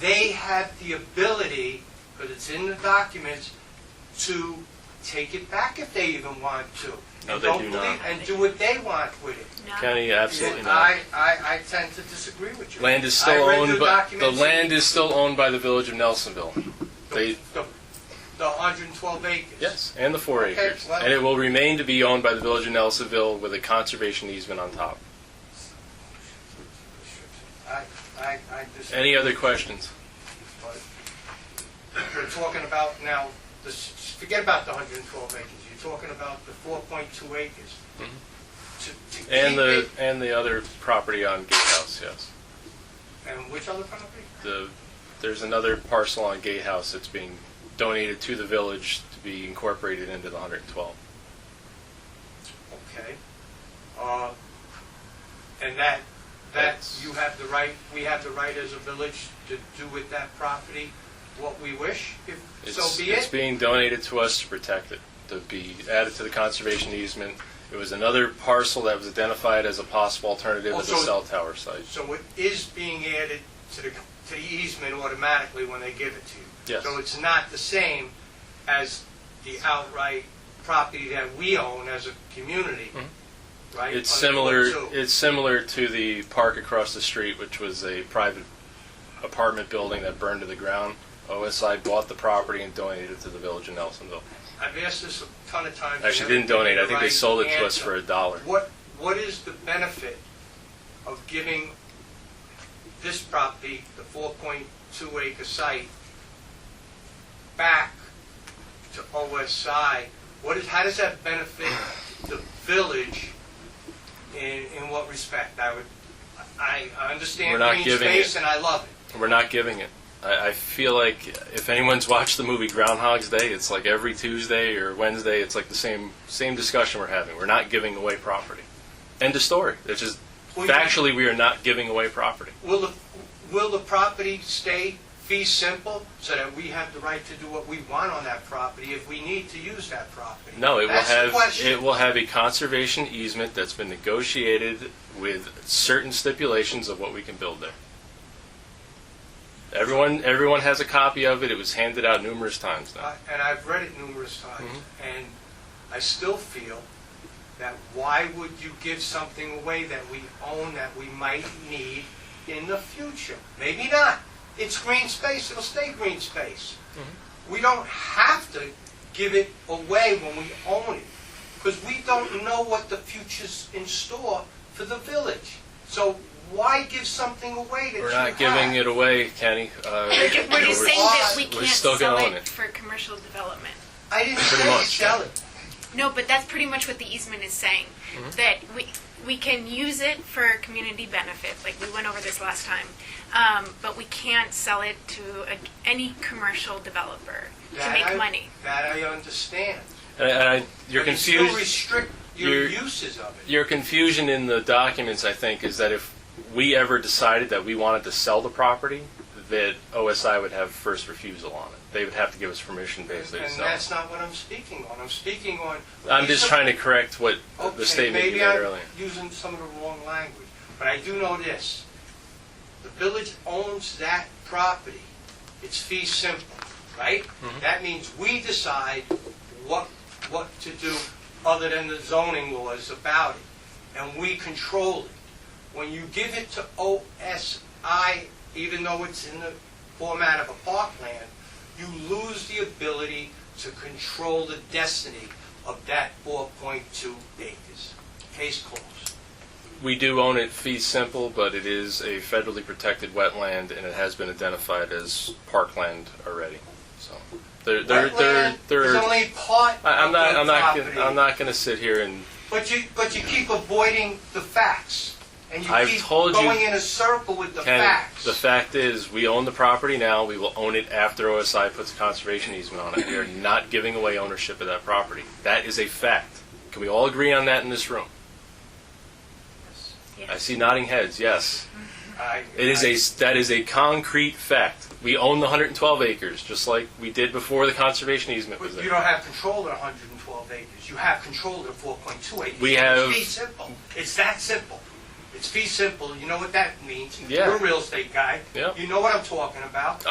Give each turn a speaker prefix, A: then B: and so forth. A: They have the ability, because it's in the documents, to take it back if they even want to.
B: No,
A: And
B: they
A: don't
B: do not.
A: believe- And do what they want with it.
B: County, absolutely
A: And
B: not.
A: I, I, I tend to disagree with you.
B: Land is
A: I
B: still
A: read
B: owned,
A: the
B: but the
A: documents.
B: land is still owned by the village of Nelsonville. They,
A: The the 112 acres.
B: yes, and the four
A: Okay,
B: acres.
A: well-
B: And it will remain to be owned by the village of Nelsonville with a conservation easement on top.
A: I, I, I disagree.
B: Any other questions?
A: but You're talking about now, this- forget about the 112 acres, you're talking about the 4.2 acres. To- to
B: Mm-hmm. And
A: keep
B: the,
A: it-
B: and the other property on Gatehouse, yes.
A: And which other property?
B: The, there's another parcel on Gatehouse that's being donated to the village to be incorporated into the 112.
A: Okay. Uh, And that, that,
B: That's-
A: you have the right, we have the right as a village to do with that property what we wish, if
B: It's,
A: so be
B: it's
A: it?
B: being donated to us to protect it, to be added to the conservation easement. It was another parcel that was identified as a possible alternative as a
A: Also-
B: cell tower site.
A: So it is being added to the, to the easement automatically when they give it to you?
B: Yes.
A: So it's not the same as the outright property that we own as a community, right?
B: Mm-hmm. It's
A: Under
B: similar,
A: Part Two.
B: it's similar to the park across the street, which was a private apartment building that burned to the ground. OSI bought the property and donated it to the village in Nelsonville.
A: I've asked this a ton of times.
B: Actually, didn't donate, I think they
A: Right
B: sold it to us
A: answer.
B: for a dollar.
A: What, what is the benefit of giving this property, the 4.2 acre site, back to OSI? What is, how does that benefit the village in, in what respect? I would, I I
B: We're
A: understand
B: not
A: green
B: giving
A: space
B: it.
A: and I love it.
B: We're not giving it. I, I feel like if anyone's watched the movie Groundhog's Day, it's like every Tuesday or Wednesday, it's like the same same discussion we're having. We're not giving away property. End of story. It's just
A: Well, you-
B: factually we are not giving away property.
A: Will the, will the property stay fee simple so that we have the right to do what we want on that property if we need to use that property?
B: No, it will
A: That's the
B: have
A: question.
B: it will have a conservation easement that's been negotiated with certain stipulations of what we can build there. Everyone everyone has a copy of it. It was handed out numerous times now.
A: I- Uh, and I've read it numerous times,
B: Mm-hmm.
A: and I still feel that why would you give something away that we own that we might need in the future? Maybe not. It's green space, it'll stay green space.
B: Mm-hmm.
A: We don't have to give it away when we own it, because we don't know what the future's in store for the village. So why give something away that
B: We're
A: you
B: not giving
A: have?
B: it away, Kenny. Uh,
C: But you- but
B: you know,
C: you're
B: we're-
C: saying that we
A: we're
C: can't
B: still
C: sell
B: gonna own
C: it
B: it.
C: for commercial development.
A: I didn't
B: Pretty
A: say
B: much,
A: sell
B: yeah.
A: it.
C: No, but that's pretty much what the easement is saying, that we, we can use it for community benefit, like we went over this last time. Um, but we can't sell it to a, any commercial developer to
A: That I-
C: make money.
A: That I understand.
B: And I, and I- your
A: But You still
B: confused,
A: restrict your
B: you're-
A: uses of it.
B: your confusion in the documents, I think, is that if we ever decided that we wanted to sell the property, that OSI would have first refusal on it. They would have to give us permission basically to
A: And
B: sell.
A: that's not what I'm speaking on. I'm speaking on.
B: I'm just trying to correct what
A: Okay,
B: the statement you
A: maybe
B: made
A: I'm
B: earlier.
A: Using some of the wrong language, but I do know this. The village owns that property. It's fee simple, right?
B: Mm-hmm.
A: That means we decide what, what to do other than the zoning laws about it, and we control it. When you give it to OSI, even though it's in the format of a parkland, you lose the ability to control the destiny of that 4.2 acres. Case closed.
B: We do own it fee simple, but it is a federally protected wetland and it has been identified as parkland already. So there, there, there,
A: Wetland
B: there.
A: is only part of the
B: I- I'm not, I'm not,
A: property.
B: gonna- I'm not gonna sit here and
A: But you, but you keep avoiding the facts, and you
B: I've
A: keep
B: told you-
A: going in a circle with the
B: Ken,
A: facts.
B: the fact is, we own the property now. We will own it after OSI puts a conservation easement on it. We are not giving away ownership of that property. That is a fact. Can we all agree on that in this room?
C: Yeah.
B: I see nodding heads. Yes,
A: Mm-hmm. I-
B: it is
A: I-
B: a that is a concrete fact. We own the 112 acres, just like we did before the conservation easement was
A: But you
B: there.
A: don't have control of the 112 acres. You have control of the 4.2 acres.
B: We have-
A: It's pretty simple. It's that simple. It's fee simple. You know what that means.
B: Yeah.
A: You're a real estate guy.
B: Yeah.
A: You know what I'm talking about.